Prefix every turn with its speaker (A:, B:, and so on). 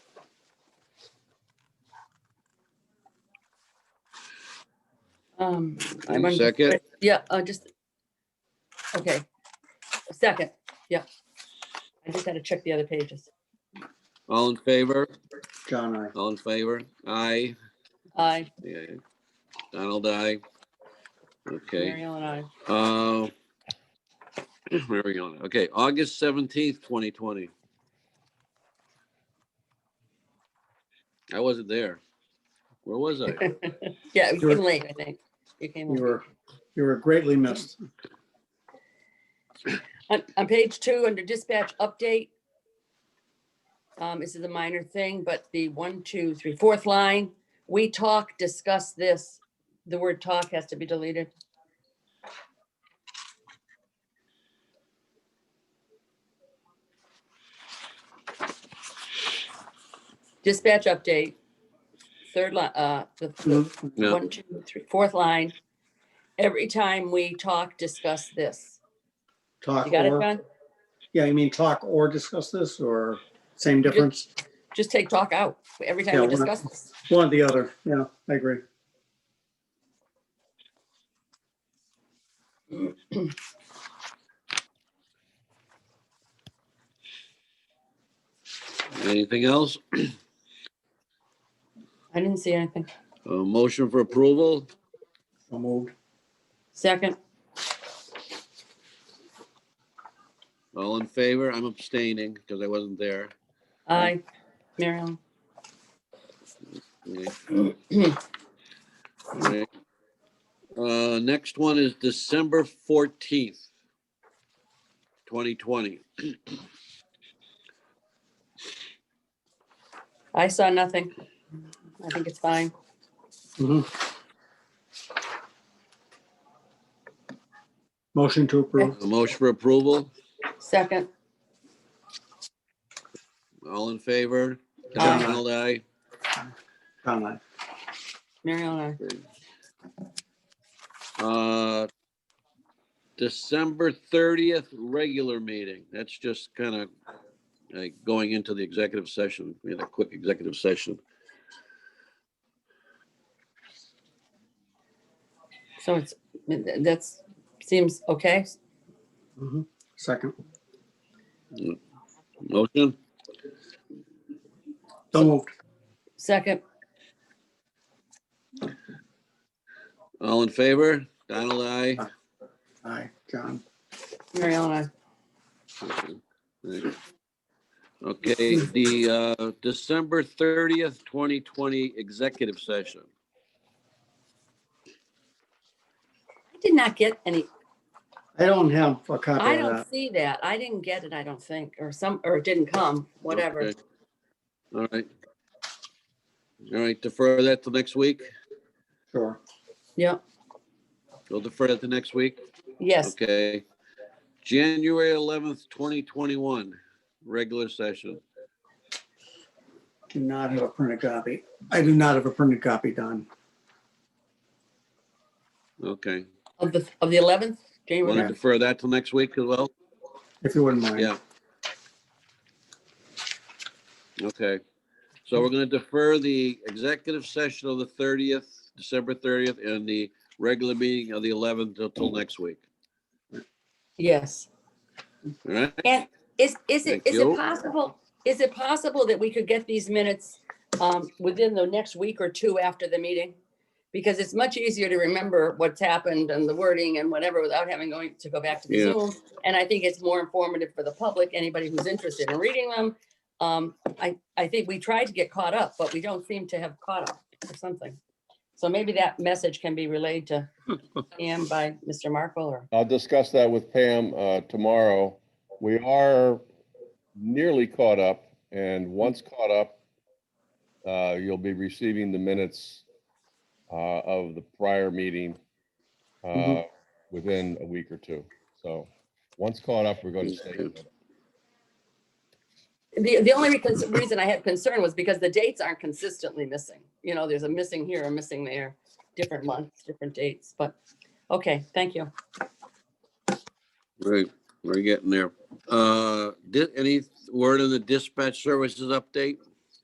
A: Um, I
B: Any
A: wanted to-
B: second?
A: Yeah, uh, just, okay. A Second, yeah. I just had to check the other pages.
B: All in favor?
C: John, I.
B: All in favor? Aye.
A: I,
B: Yeah. Donald, aye. Okay.
A: Mary Ellen, I.
B: Uh, Where are we going? Okay, August seventeenth, twenty twenty. I wasn't there. Where was I?
A: Yeah, it
C: Sure.
A: came late, I think. It came
C: You
A: late.
C: were, you were greatly missed.
A: On, on page two, under dispatch update. Um, this is a minor thing, but the one, two, three, fourth line, we talk, discuss this. The word talk has to be deleted. Dispatch update. Third line, uh, the- the
B: No.
A: one, two, three, fourth line. Every time we talk, discuss this.
C: Talk
A: You got it,
C: or,
A: John?
C: yeah, you mean talk or discuss this or same difference?
A: Just take talk out every time
C: Yeah,
A: we
C: we're not-
A: discuss this.
C: One or the other. Yeah, I agree.
B: Anything else?
A: I didn't see anything.
B: A Uh, motion for approval?
C: So moved.
A: Second,
B: All in favor? I'm abstaining because I wasn't there.
A: aye, Mary Ellen.
B: Okay. Alright. Uh, next one is December fourteenth, twenty twenty.
A: I saw nothing. I think it's fine.
C: Mhm. Motion to approve.
B: A motion for approval?
A: Second,
B: All in favor?
A: Aye.
B: Donald, aye.
C: John, I.
A: Mary Ellen,
B: Uh, December thirtieth, regular meeting. That's just kind of like going into the executive session. We had a quick executive session.
A: aye. So it's, that's, seems okay.
C: Mhm. Second.
B: Motion?
C: So moved.
A: Second,
B: All in favor? Donald, aye.
C: Aye, John.
A: Mary Ellen,
B: Okay, the uh, December thirtieth, twenty twenty executive session.
A: I did not get any,
C: I don't have a copy
A: I
C: of
A: don't
C: that.
A: see that. I didn't get it, I don't think, or some, or it didn't come, whatever.
B: Okay. All right. All right, defer that till next week.
C: Sure.
A: Yeah,
B: We'll defer that to next week.
A: yes,
B: Okay. January eleventh, twenty twenty-one, regular session.
C: Do not have a printed copy. I do not have a printed copy, Don.
B: Okay.
A: of the, of the eleventh,
B: Want to
A: January.
B: defer that till next week as well?
C: If you wouldn't mind.
B: Yeah. Okay. So we're going to defer the executive session of the thirtieth, December thirtieth, and the regular meeting of the eleventh until next week.
A: Yes.
B: All right?
A: And is, is it,
B: Thank
A: is
B: you.
A: it possible, is it possible that we could get these minutes um, within the next week or two after the meeting? Because it's much easier to remember what's happened and the wording and whatever without having going to go back to the
B: Yeah.
A: Zoom. And I think it's more informative for the public, anybody who's interested in reading them. Um, I, I think we tried to get caught up, but we don't seem to have caught up or something. So maybe that message can be relayed to Pam by Mr. Markle or,
D: I'll discuss that with Pam uh, tomorrow. We are nearly caught up, and once caught up, uh, you'll be receiving the minutes uh, of the prior meeting uh,
C: Mhm.
D: within a week or two. So, once caught up, we're going to stay.
A: The, the only recon- reason I had concern was because the dates aren't consistently missing. You know, there's a missing here, a missing there, different months, different dates, but, okay, thank you.
B: Right, we're getting there. Uh, did, any word on the dispatch services update?